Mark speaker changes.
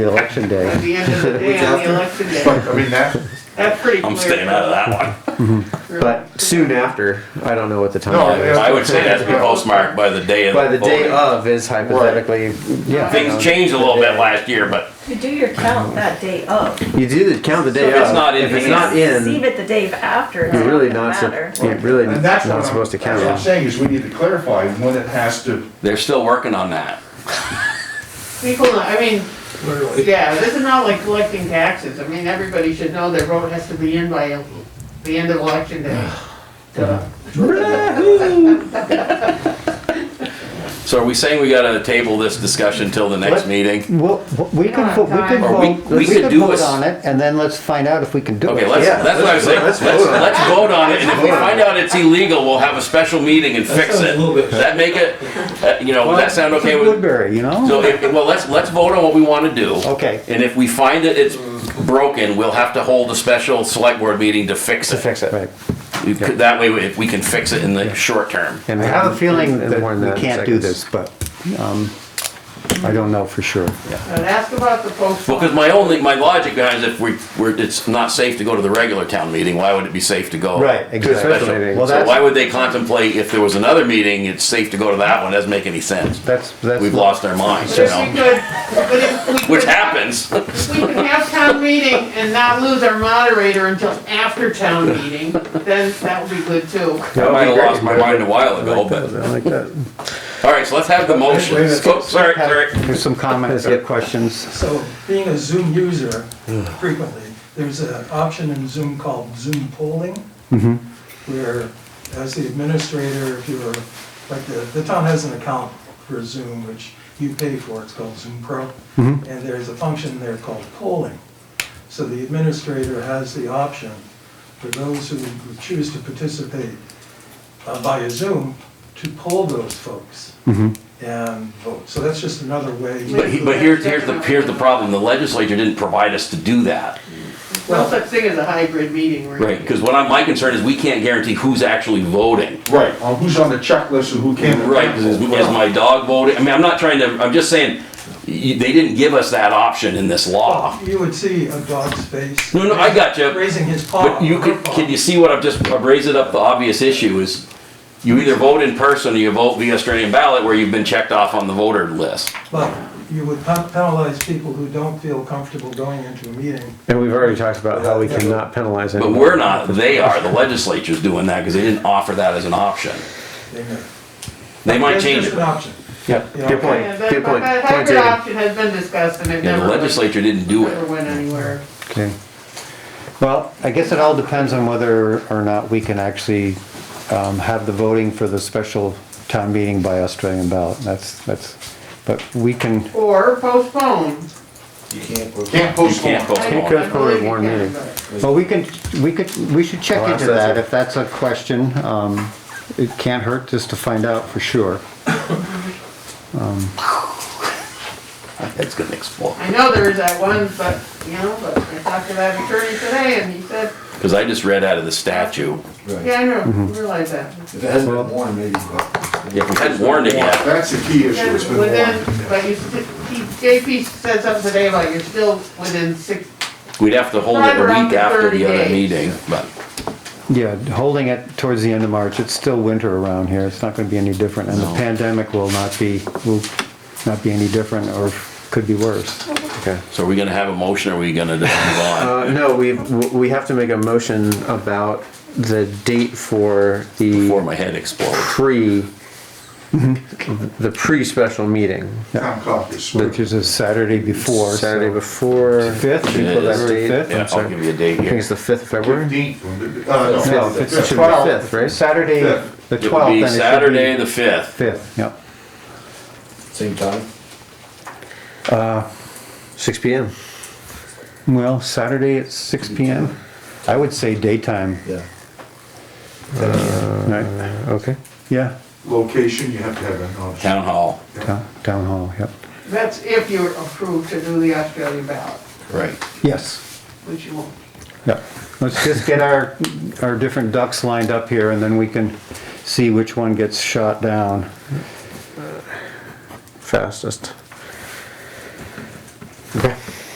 Speaker 1: election
Speaker 2: At
Speaker 1: day.
Speaker 2: the end of the day, on the election day,
Speaker 3: I mean, that,
Speaker 2: that's pretty clear.
Speaker 4: I'm staying out of that one.
Speaker 1: But soon after, I don't know what the
Speaker 3: No,
Speaker 1: time
Speaker 3: yeah.
Speaker 1: is.
Speaker 4: I would say that's postmarked by the day of.
Speaker 1: By the day
Speaker 4: voting.
Speaker 1: of is hypothetically, yeah. Um,
Speaker 4: Things changed a little bit last year, but
Speaker 5: You do your count that day of.
Speaker 1: You do the count the day
Speaker 4: if it's not
Speaker 1: of.
Speaker 4: in
Speaker 1: If it's
Speaker 4: hand-
Speaker 1: not
Speaker 5: Receive
Speaker 1: in,
Speaker 5: it the day after, it's
Speaker 1: you're
Speaker 5: not
Speaker 1: really
Speaker 5: gonna
Speaker 1: not, sup-
Speaker 5: matter.
Speaker 1: you're really
Speaker 3: and that's what
Speaker 1: not
Speaker 3: I'm-
Speaker 1: supposed to count
Speaker 3: That's what I'm
Speaker 1: on.
Speaker 3: saying is we need to clarify when it has to,
Speaker 4: they're still working on that.
Speaker 2: People, I mean, yeah, this is not like collecting taxes. I mean, everybody should know their vote has to be in by the end of election day. So,
Speaker 4: So are we saying we gotta table this discussion till the next
Speaker 1: What?
Speaker 4: meeting?
Speaker 6: Well, we
Speaker 2: don't
Speaker 6: can,
Speaker 2: have
Speaker 6: vote- we
Speaker 2: time.
Speaker 6: can
Speaker 4: Or we-
Speaker 6: vote,
Speaker 4: we
Speaker 6: we
Speaker 4: could
Speaker 6: can
Speaker 4: do
Speaker 6: vote
Speaker 4: a s-
Speaker 6: on it, and then let's find out if we can do it.
Speaker 4: Okay, let's,
Speaker 1: Yeah,
Speaker 4: that's what I was saying, let's,
Speaker 1: let's vote on it.
Speaker 4: let's vote on it, and if we find out it's illegal, we'll have a special meeting and fix it. Does that make it, uh, you know, would that sound okay with?
Speaker 6: Woodbury, you know?
Speaker 4: So, if- well, let's, let's vote on what we wanna do.
Speaker 6: Okay.
Speaker 4: And if we find that it's broken, we'll have to hold a special select board meeting to fix
Speaker 1: To
Speaker 4: it.
Speaker 1: fix it. Right.
Speaker 4: You could- That way, if we can fix it in the short term.
Speaker 6: I have a feeling
Speaker 1: And
Speaker 6: that
Speaker 1: more than
Speaker 6: we
Speaker 1: that in
Speaker 6: can't do
Speaker 1: seconds.
Speaker 6: this, but, um, I don't know for sure.
Speaker 2: And ask about the post.
Speaker 4: Well, because my only, my logic behind is if we, we're, it's not safe to go to the regular town meeting, why would it be safe to go?
Speaker 6: Right,
Speaker 4: to a
Speaker 6: exactly.
Speaker 4: special?
Speaker 1: Special meeting.
Speaker 6: Well,
Speaker 4: So why
Speaker 6: that's,
Speaker 4: would they contemplate if there was another meeting, it's safe to go to that one, doesn't make any sense.
Speaker 6: that's, that's.
Speaker 4: We've lost our minds,
Speaker 2: But
Speaker 4: you
Speaker 2: if we
Speaker 4: know,
Speaker 2: could, but if we could.
Speaker 4: which happens.
Speaker 2: We can have town meeting and not lose our moderator until after town meeting, then that would be good too.
Speaker 4: I might have lost my mind a while ago, but,
Speaker 6: I like that.
Speaker 4: all right, so let's have the motion.
Speaker 3: Wait a minute.
Speaker 4: Oh, Sorry,
Speaker 6: Have-
Speaker 4: sorry.
Speaker 6: There's some comments or questions.
Speaker 7: So being a Zoom user frequently, there's an option in Zoom called Zoom polling,
Speaker 4: Mm-hmm.
Speaker 7: where as the administrator, if you're, like, the, the town has an account for Zoom, which you pay for, it's called Zoom Pro,
Speaker 4: Mm-hmm.
Speaker 7: and there's a function there called polling. So the administrator has the option for those who choose to participate uh, via Zoom to poll those folks and vote. So that's just another way.
Speaker 4: Mm-hmm. But, he- but here's, here's the, here's the problem, the legislature didn't provide us to do that.
Speaker 2: No such thing as a hybrid meeting, right?
Speaker 4: Right, because what I'm, my concern is we can't guarantee who's actually voting.
Speaker 3: right, on who's on the checklist and who came. to
Speaker 4: Right, is, is my dog voting? I mean, I'm not trying to, I'm just saying, you, they didn't give us that option in this law.
Speaker 7: You would see a dog's face.
Speaker 4: No, no, I got you.
Speaker 7: Raising his paw.
Speaker 4: But you
Speaker 7: her
Speaker 4: could,
Speaker 7: paw.
Speaker 4: can you see what I've just, I've raised it up, the obvious issue is you either vote in person or you vote via Australian ballot where you've been checked off on the voter list.
Speaker 7: But you would pen- penalize people who don't feel comfortable going into a meeting.
Speaker 1: And we've already talked about how we cannot penalize
Speaker 4: But
Speaker 1: anyone.
Speaker 4: we're not, they are, the legislature's doing that because they didn't offer that as an option.
Speaker 7: They may.
Speaker 4: They might
Speaker 7: That's
Speaker 4: change
Speaker 7: just
Speaker 4: it.
Speaker 7: an option.
Speaker 1: Yep,
Speaker 7: Yeah.
Speaker 1: good
Speaker 2: Yeah,
Speaker 1: point,
Speaker 2: that-
Speaker 1: good
Speaker 2: but
Speaker 1: point.
Speaker 2: that
Speaker 1: Point
Speaker 2: hybrid
Speaker 1: taken.
Speaker 2: option has been discussed and it
Speaker 4: Yeah, the
Speaker 2: never, went-
Speaker 4: legislature didn't do
Speaker 2: never
Speaker 4: it.
Speaker 2: went anywhere.
Speaker 6: Okay. Well, I guess it all depends on whether or not we can actually um, have the voting for the special town meeting by Australian ballot. That's, that's, but we can,
Speaker 2: Or postpone.
Speaker 3: Can't
Speaker 4: You
Speaker 3: postpone.
Speaker 4: can't
Speaker 2: I-
Speaker 4: postpone.
Speaker 1: could
Speaker 2: I
Speaker 1: call
Speaker 2: believe
Speaker 1: it
Speaker 2: you
Speaker 1: one
Speaker 2: can,
Speaker 1: meeting.
Speaker 2: but-
Speaker 6: well, we can, we could, we should check
Speaker 1: I'll ask
Speaker 6: into
Speaker 1: that
Speaker 6: that
Speaker 1: too.
Speaker 6: if that's a question. Um, It can't hurt just to find out for sure.
Speaker 4: It's gonna explode.
Speaker 2: I know there was that one, but, you know, but I talked to that attorney today and he said,
Speaker 4: Because I just read out of the statute.
Speaker 2: yeah, I know, I realize that.
Speaker 8: If it hasn't been worn, maybe, but
Speaker 4: If we hadn't warned it yet.
Speaker 3: That's the key issue,
Speaker 2: Yeah,
Speaker 3: it's been warned.
Speaker 2: within, but you, st- he- JP said something today about you're still within six,
Speaker 4: We'd have to hold it
Speaker 2: Right
Speaker 4: a
Speaker 2: around
Speaker 4: week
Speaker 2: the
Speaker 4: after
Speaker 2: 30
Speaker 4: the other
Speaker 2: days.
Speaker 4: meeting, but
Speaker 6: Yeah, holding it towards the end of March, it's still winter around here, it's not gonna be any different, and the
Speaker 4: No.
Speaker 6: pandemic will not be, will not be any different, or could be worse.
Speaker 1: Okay.
Speaker 4: so are we gonna have a motion or are we gonna just move on?
Speaker 1: Uh, no, we, we have to make a motion about the date for
Speaker 4: Before
Speaker 1: the
Speaker 4: my head explodes.
Speaker 1: pre, the pre-special meeting.
Speaker 3: Town caucus.
Speaker 6: Which is a Saturday before. so-
Speaker 1: Saturday before.
Speaker 6: Fifth, should we put that
Speaker 1: February
Speaker 6: date?
Speaker 1: fifth?
Speaker 4: Yeah,
Speaker 1: I'm
Speaker 4: I'll
Speaker 1: sorry.
Speaker 4: give you a date
Speaker 1: I think
Speaker 4: here.
Speaker 1: it's the fifth of February.
Speaker 3: Fifteenth, uh, no.
Speaker 6: No, it's- it should be
Speaker 3: Well,
Speaker 6: the fifth, right? Saturday,
Speaker 3: Fifth.
Speaker 6: the
Speaker 4: It would
Speaker 6: twelfth,
Speaker 4: be
Speaker 6: then it should be.
Speaker 4: Saturday, the fifth.
Speaker 6: Fifth, yep.
Speaker 8: same time.
Speaker 1: Six P M.
Speaker 6: Well, Saturday at six P M. I would say daytime,
Speaker 8: Yeah.
Speaker 6: right?
Speaker 1: Okay.
Speaker 6: Yeah,
Speaker 3: Location, you have to have a notice.
Speaker 4: Town hall.
Speaker 6: town, town hall, yep.
Speaker 2: that's if you're approved to do the Australian ballot,
Speaker 4: Right.
Speaker 6: Yes,
Speaker 2: which you won't.
Speaker 6: yep. Let's just get our, our different ducks lined up here and then we can see which one gets shot down.
Speaker 1: Fastest.